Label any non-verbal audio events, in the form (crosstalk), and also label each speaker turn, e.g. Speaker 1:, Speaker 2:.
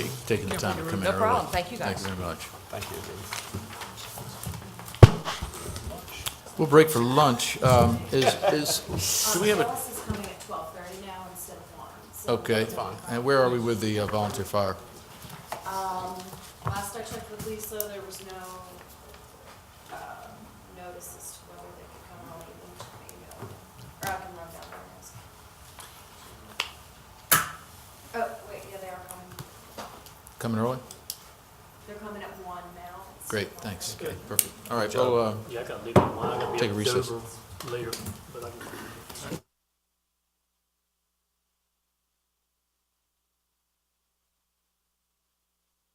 Speaker 1: taking the time to come in
Speaker 2: No
Speaker 1: early.
Speaker 2: problem. Thank you, guys.
Speaker 1: Thank you very much.
Speaker 3: Thank you. David.
Speaker 1: We'll break for lunch.
Speaker 2: (laughs)
Speaker 1: Um, Is, is, do we have a,
Speaker 4: Alice Uh, is coming at twelve thirty now instead of one. so-
Speaker 1: okay. And where are we with the uh, volunteer fire?
Speaker 4: Um, Last I checked with Lisa, there was no, um, notice as to whether they could come out and leave an email, or I can run down there and ask. Oh, wait, yeah, they are coming,
Speaker 1: Coming early?
Speaker 4: they're coming at one now. It's
Speaker 1: Great,
Speaker 4: one.
Speaker 1: thanks. Perfect. All right, well, uh,
Speaker 5: Yeah, I gotta leave at one, I gotta be
Speaker 1: Take a
Speaker 5: at
Speaker 1: recess.
Speaker 5: Dover later, but I can.